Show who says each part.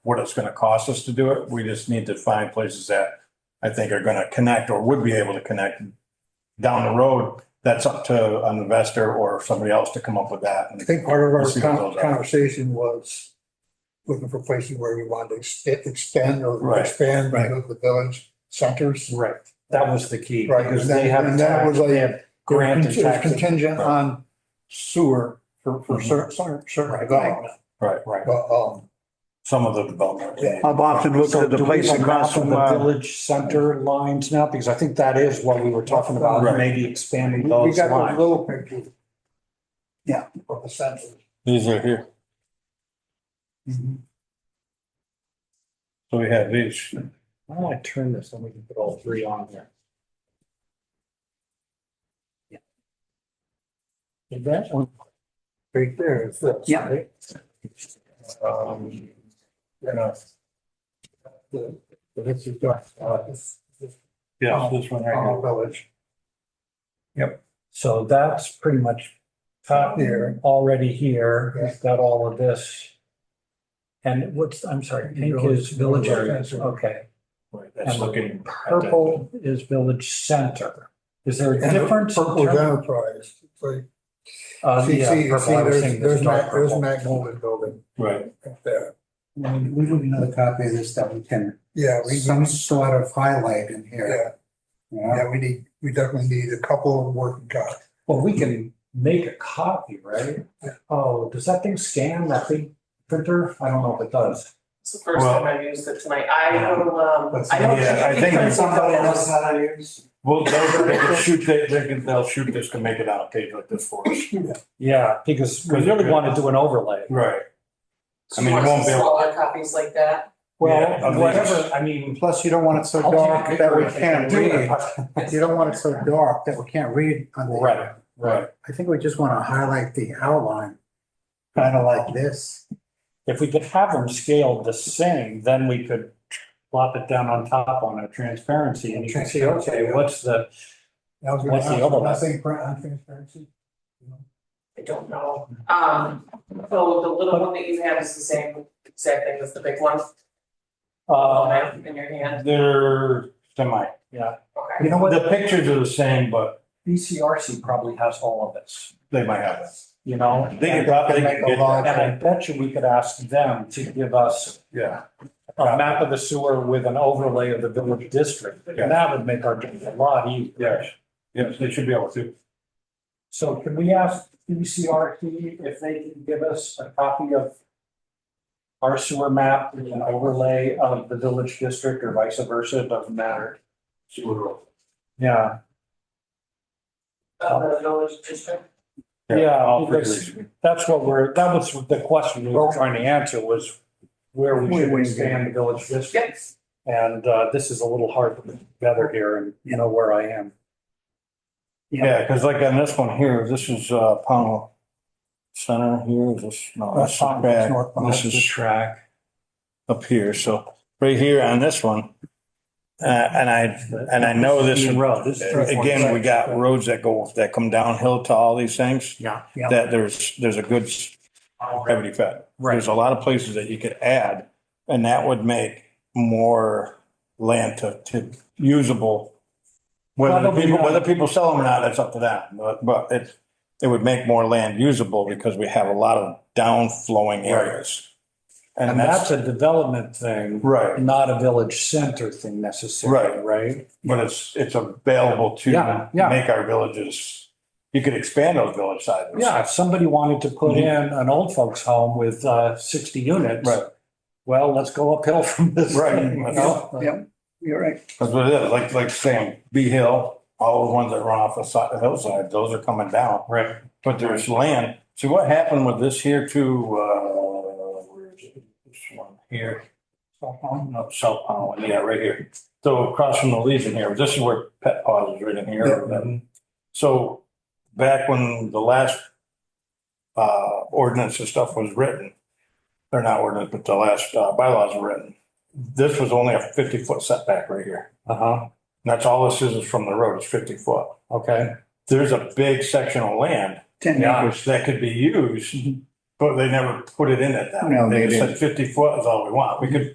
Speaker 1: what it's gonna cost us to do it. We just need to find places that I think are gonna connect or would be able to connect down the road. That's up to an investor or somebody else to come up with that.
Speaker 2: I think part of
Speaker 1: Let's see
Speaker 2: our
Speaker 1: what
Speaker 2: con-
Speaker 1: those are.
Speaker 2: conversation was looking for places where we wanted to ex- extend or
Speaker 1: Right.
Speaker 2: expand
Speaker 3: Right.
Speaker 2: the village centers.
Speaker 3: Right, that was the key.
Speaker 2: Right,
Speaker 3: Because
Speaker 2: and that-
Speaker 3: they have,
Speaker 2: and that was
Speaker 3: tax-
Speaker 2: like-
Speaker 3: they have grant and
Speaker 2: It was
Speaker 3: taxes.
Speaker 2: Contingent
Speaker 1: Right.
Speaker 2: on sewer for, for
Speaker 3: Mhm.
Speaker 2: certain, certain, certain
Speaker 3: Right.
Speaker 2: development.
Speaker 1: Right,
Speaker 3: Right.
Speaker 2: But, um,
Speaker 1: some of the development.
Speaker 2: Yeah.
Speaker 4: I've often looked
Speaker 3: So
Speaker 4: at the
Speaker 3: do we
Speaker 4: place
Speaker 3: have a
Speaker 4: across
Speaker 3: map of
Speaker 4: from,
Speaker 3: The
Speaker 4: uh,
Speaker 3: village center lines now, because I think that is what we were talking about,
Speaker 1: Right.
Speaker 3: maybe expanding
Speaker 2: we we
Speaker 3: those
Speaker 2: got those
Speaker 3: lines.
Speaker 2: little pictures. Yeah, of the centers.
Speaker 1: These are here.
Speaker 3: Mm-hmm.
Speaker 1: So we have these.
Speaker 3: Why don't I turn this and we can put all three on there? Yeah. Is that one?
Speaker 2: Right there is this.
Speaker 4: Yeah.
Speaker 2: right?
Speaker 3: Um,
Speaker 2: You know, the- the- this is, uh, this- this
Speaker 1: Yeah, this one right here.
Speaker 2: Pownell Village
Speaker 3: So that's pretty much
Speaker 2: top here.
Speaker 3: already here.
Speaker 2: Yeah.
Speaker 3: We've got all of this. And what's, I'm sorry, pink is village areas, okay.
Speaker 1: That's looking.
Speaker 3: Purple is village center. Is there a
Speaker 2: And the
Speaker 3: difference? in
Speaker 2: Purple is
Speaker 3: term-
Speaker 2: Enterprise. It's like,
Speaker 3: Uh,
Speaker 2: see,
Speaker 3: yeah,
Speaker 2: see,
Speaker 3: purple,
Speaker 2: see,
Speaker 3: I was
Speaker 2: there's,
Speaker 3: thinking
Speaker 2: there's
Speaker 3: it's dark
Speaker 2: Mac, there's
Speaker 3: purple.
Speaker 2: Mac Mullen building
Speaker 1: Right.
Speaker 2: up there.
Speaker 5: I mean, we need another copy of this that we can,
Speaker 2: Yeah, we,
Speaker 5: some sort of highlight in here.
Speaker 2: yeah,
Speaker 5: you know?
Speaker 2: yeah, we need, we definitely need a couple of working copies.
Speaker 3: Well, we can make a copy, right? Oh, does that thing scan that big printer? I don't know if it does.
Speaker 6: It's the first
Speaker 1: Well-
Speaker 6: time I've used it tonight. I will, um,
Speaker 5: Let's
Speaker 6: I don't.
Speaker 1: Yeah, I think
Speaker 6: because-
Speaker 5: Somebody knows how to use.
Speaker 1: Well, they'll, they can shoot, they, they can, they'll shoot this to make it on a page like this for us.
Speaker 3: Yeah, because we really want to do an overlay.
Speaker 1: Right. I mean, it
Speaker 6: She wants
Speaker 1: won't be
Speaker 6: some
Speaker 1: able-
Speaker 6: Smaller copies like that.
Speaker 1: Yeah, of
Speaker 3: Well,
Speaker 1: these.
Speaker 3: whatever, I mean.
Speaker 5: Plus, you don't want it so
Speaker 3: I'll
Speaker 5: dark
Speaker 3: take a
Speaker 5: that we
Speaker 3: picture
Speaker 5: can't
Speaker 3: of it.
Speaker 5: read. You don't want it so dark that we can't read on the.
Speaker 3: Right, right.
Speaker 5: I think we just want to highlight the outline, kind of like this.
Speaker 3: If we could have them scaled the same, then we could plop it down on top on a transparency and you can see, okay, what's the,
Speaker 2: I was gonna
Speaker 3: What's the
Speaker 2: ask,
Speaker 3: other one?
Speaker 2: Nothing print on transparency?
Speaker 6: I don't know. Um, so the little one that you have is the same exact thing as the big one
Speaker 3: uh,
Speaker 6: um, in your hand.
Speaker 1: They're semi.
Speaker 3: yeah.
Speaker 6: Okay.
Speaker 3: You know what,
Speaker 1: The
Speaker 3: the
Speaker 1: pictures are the same, but
Speaker 3: BCRC probably has all of this,
Speaker 1: they might have it.
Speaker 3: you know?
Speaker 1: They can probably
Speaker 2: Make a
Speaker 1: get that.
Speaker 2: lot.
Speaker 3: And I bet you we could ask them to give us
Speaker 1: Yeah,
Speaker 3: a Uh, map of the sewer with an overlay of the village district.
Speaker 1: Yeah.
Speaker 3: And that would make our job a lot easier.
Speaker 1: yes, yes, they should be able to.
Speaker 3: So can we ask BCRC if they can give us a copy of our sewer map with an overlay of the village district or vice versa, it doesn't matter. Yeah,
Speaker 6: Of Uh, the village district.
Speaker 3: Yeah,
Speaker 1: all three
Speaker 3: because-
Speaker 1: of these.
Speaker 3: that's what we're, that was the question we were trying to answer was where we should expand the village district.
Speaker 6: Yes.
Speaker 3: And uh, this is a little hard to put together here and you know where I am.
Speaker 1: Yeah, because like on this one here, this is uh Pownell Center here, is this,
Speaker 3: Oh,
Speaker 1: no, that's
Speaker 2: Pownell,
Speaker 1: track.
Speaker 2: North Pownell.
Speaker 1: This is track up here, so right here on this one. Uh, and I, and I know this, uh,
Speaker 3: Main Road, this is.
Speaker 1: again, we got roads that go, that come downhill to all these things.
Speaker 3: Yeah.
Speaker 1: That there's, there's a good gravity fed.
Speaker 3: Right,
Speaker 1: There's a lot of places that you could add, and that would make more land to, to usable. Whether the
Speaker 3: Probably
Speaker 1: people,
Speaker 3: not.
Speaker 1: whether people sell them or not, that's up to them, but, but it, it would make more land usable because we have a lot of downflowing areas.
Speaker 3: and that's a development thing,
Speaker 1: Right,
Speaker 3: not a village center thing necessarily, right?
Speaker 1: but it's, it's available
Speaker 3: Yeah,
Speaker 1: to
Speaker 3: yeah.
Speaker 1: make our villages, you could expand those village sizes.
Speaker 3: Yeah, if somebody wanted to put in an old folks home with uh, sixty units.
Speaker 1: Mm-hmm. Right.
Speaker 3: Well, let's go uphill from this
Speaker 1: Right.
Speaker 3: thing, you know?
Speaker 5: Yep, you're right.
Speaker 1: That's what it is, like, like saying, Bee Hill, all the ones that run off the side, the hillside, those are coming down.
Speaker 3: Right.
Speaker 1: But there's land. See what happened with this here too, uh, where is it? This one here. No, South Pownell, yeah, right here. So across from the Legion here, this is where Pet Paws is right in
Speaker 3: mm-hmm.
Speaker 1: here. So back when the last uh, ordinance and stuff was written, they're not ordinance, but the last uh, bylaws were written. This was only a fifty foot setback right here.
Speaker 3: Uh-huh,
Speaker 1: And that's all this is, is from the road, it's fifty foot.
Speaker 3: okay.
Speaker 1: There's a big section of land
Speaker 5: Ten
Speaker 3: Yeah.
Speaker 1: which that could be used But they never put it in at that.
Speaker 4: No, they
Speaker 1: just said Fifty foot is all we want. We could